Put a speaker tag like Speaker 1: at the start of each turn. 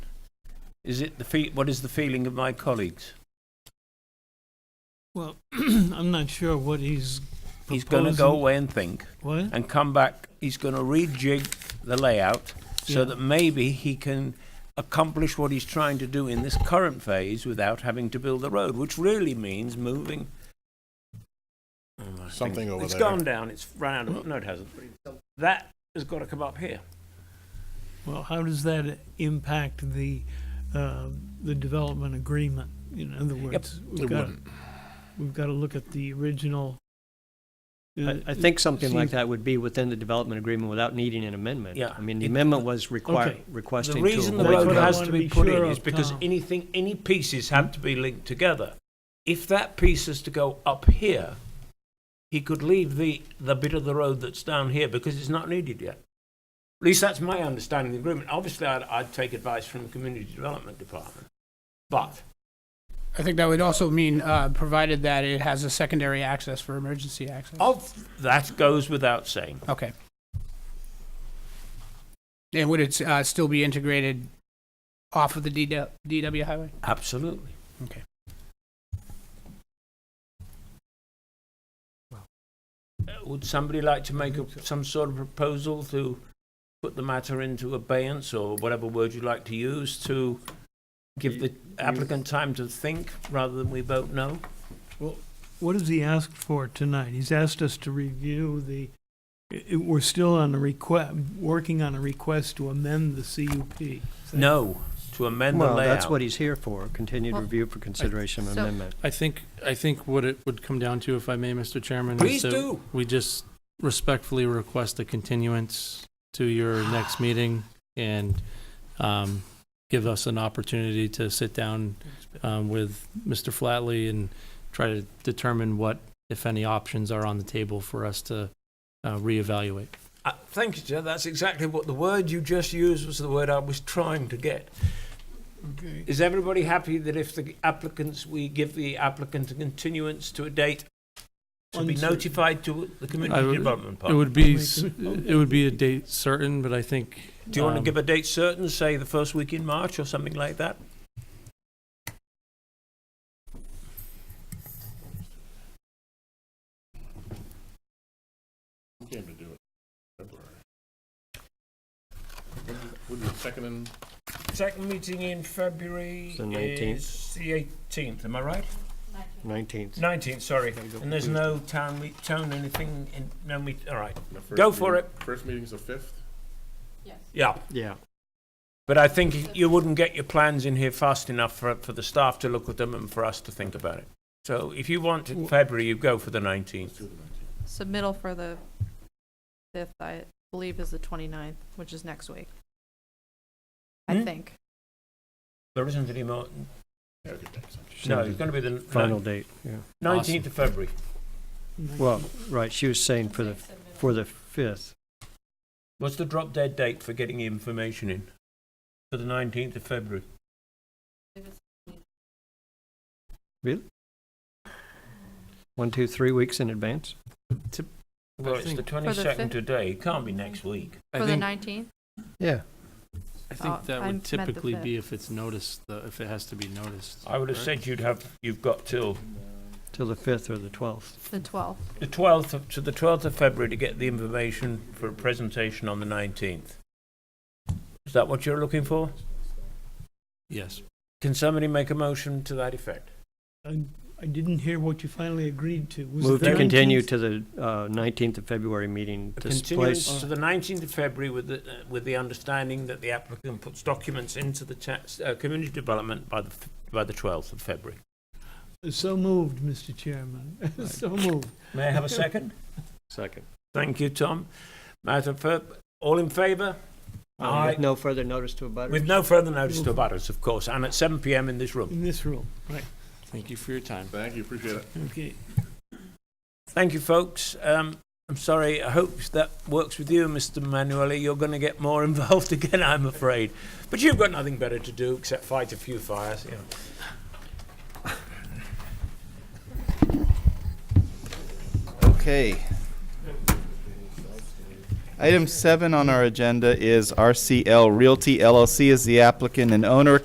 Speaker 1: Is it the fe- what is the feeling of my colleagues?
Speaker 2: Well, I'm not sure what he's proposing.
Speaker 1: He's going to go away and think
Speaker 2: What?
Speaker 1: and come back. He's going to rejig the layout so
Speaker 2: Yeah.
Speaker 1: that maybe he can accomplish what he's trying to do in this current phase without having to build the road, which really means moving Oh, I think
Speaker 3: Something over
Speaker 1: It's
Speaker 3: there.
Speaker 1: gone down. It's run out of. No, it hasn't. That has got to come up here.
Speaker 2: Well, how does that impact the, uh, the development agreement? In other words,
Speaker 3: It
Speaker 2: we've got,
Speaker 3: wouldn't.
Speaker 2: we've got to look at the original. uh,
Speaker 4: I, I think something like
Speaker 2: seems-
Speaker 4: that would be within the development agreement without needing an amendment.
Speaker 1: Yeah.
Speaker 4: I mean, the
Speaker 1: It-
Speaker 4: amendment was require,
Speaker 2: okay.
Speaker 4: requesting to.
Speaker 1: The reason the
Speaker 4: avoid
Speaker 2: That's
Speaker 1: road
Speaker 2: what I
Speaker 1: has
Speaker 2: wanna
Speaker 1: to be
Speaker 2: be
Speaker 1: put in
Speaker 2: sure
Speaker 1: is
Speaker 2: of,
Speaker 1: because
Speaker 2: Tom.
Speaker 1: anything, any pieces have to be linked together. If that piece is to go up here, he could leave the, the bit of the road that's down here because it's not needed yet. At least that's my understanding of the agreement. Obviously, I'd, I'd take advice from the community development department. But
Speaker 5: I think that would also mean, uh, provided that it has a secondary access for emergency access.
Speaker 1: of, that goes without saying.
Speaker 5: Okay. And would it, uh, still be integrated off of the DW, DW highway?
Speaker 1: Absolutely.
Speaker 5: Okay.
Speaker 1: Uh, Would somebody like to make a- some sort of proposal to put the matter into abeyance, or whatever word you like to use, to give the applicant time to think, rather than we vote no?
Speaker 2: What has he asked for tonight? He's asked us to review the, i- i- we're still on the request, working on a request to amend the CUP.
Speaker 1: No, to amend the
Speaker 4: Well, that's
Speaker 1: layout.
Speaker 4: what he's here for, continued
Speaker 6: Well,
Speaker 4: review for consideration of
Speaker 6: so-
Speaker 4: amendment.
Speaker 7: I think, I think what it would come down to, if I may, Mr. Chairman,
Speaker 1: Please
Speaker 7: is that
Speaker 1: do.
Speaker 7: we just respectfully request a continuance to your next meeting and um, give us an opportunity to sit down um, with Mr. Flatley and try to determine what, if any, options are on the table for us to uh, reevaluate.
Speaker 1: Uh, Thank you, sir, that's exactly what the word you just used was the word I was trying to get.
Speaker 2: Okay.
Speaker 1: Is everybody happy that if the applicants, we give the applicant a continuance to a date to be
Speaker 2: Uncertain.
Speaker 1: notified to the
Speaker 7: I
Speaker 1: community
Speaker 7: would-
Speaker 1: development
Speaker 7: It
Speaker 1: partner?
Speaker 7: would be, s- it would be a date certain, but I think.
Speaker 1: Do you want to
Speaker 7: um,
Speaker 1: give a date certain, say the first week in March or something like that?
Speaker 3: Came to do it. February. Wouldn't- Wouldn't the second and
Speaker 1: Second meeting in February
Speaker 4: It's the 19th.
Speaker 1: the eighteenth, am I right?
Speaker 4: Nineteenth.
Speaker 1: Nineteenth, sorry. And there's no town meet, town anything in, no meet, all right.
Speaker 3: the first
Speaker 1: Go for
Speaker 3: meeting- First meeting's the fifth?
Speaker 1: Yeah,
Speaker 4: Yeah,
Speaker 1: but I think you wouldn't get your plans in here fast enough for, for the staff to look at them and for us to think about it. So if you want in February, you go for the nineteenth.
Speaker 6: Submittal for the 5th, I believe, is the 29th, which is next week. I
Speaker 1: Hmm?
Speaker 6: think.
Speaker 1: There isn't any more,
Speaker 3: Yeah, we could make some.
Speaker 1: no, it's going to be the
Speaker 4: final date, yeah.
Speaker 1: nineteenth of February.
Speaker 4: Well, right, she was saying for the, for the fifth.
Speaker 1: What's the drop dead date for getting information in? For the 19th of February?
Speaker 4: One, two, three weeks in advance?
Speaker 1: Well,
Speaker 7: I
Speaker 1: it's
Speaker 7: think-
Speaker 1: the
Speaker 6: the
Speaker 1: 22nd
Speaker 6: fifth?
Speaker 1: today. It can't be next week.
Speaker 7: I
Speaker 6: For the
Speaker 7: think-
Speaker 6: 19th?
Speaker 4: Yeah.
Speaker 7: I
Speaker 6: Oh,
Speaker 7: think that
Speaker 6: I meant
Speaker 7: would
Speaker 6: the
Speaker 7: typically
Speaker 6: fifth.
Speaker 7: be if it's noticed, though, if it has to be noticed.
Speaker 1: I would have
Speaker 7: right?
Speaker 1: said you'd have, you've got till
Speaker 4: Till the fifth or the twelfth.
Speaker 6: The 12th.
Speaker 1: the 12th, of- to the 12th of February to get the information for a presentation on the 19th. Is that what you're looking for?
Speaker 7: Yes.
Speaker 1: Can somebody make a motion to that effect?
Speaker 2: I I didn't hear what you finally agreed to. Was it
Speaker 4: Move
Speaker 2: the
Speaker 4: to continue
Speaker 2: 19th?
Speaker 4: to the uh, nineteenth of February meeting.
Speaker 1: A
Speaker 4: This
Speaker 1: continuance
Speaker 4: place,
Speaker 1: to the 19th of February with the, uh, with the understanding that the applicant puts documents into the tax, uh, community development by the, f- by the 12th of February.
Speaker 2: So moved, Mr. Chairman. So moved.
Speaker 1: May I have a second?
Speaker 4: second.
Speaker 1: Thank you, Tom. Matter for, all in favour?
Speaker 4: Um, with No further notice to a butter.
Speaker 1: With no further notice to abutters, of course, and at seven PM in this room.
Speaker 2: In this room, right,
Speaker 7: Thank you for your time.
Speaker 3: Thank you, appreciate it.
Speaker 2: okay.
Speaker 1: Thank you, folks. Um, I'm sorry, I hope that works with you, Mr Manueli. You're going to get more involved again, I'm afraid. But you've got nothing better to do except fight a few fires, you know.
Speaker 8: Okay. Item seven on our agenda is RCL Realty LLC is the applicant and owner.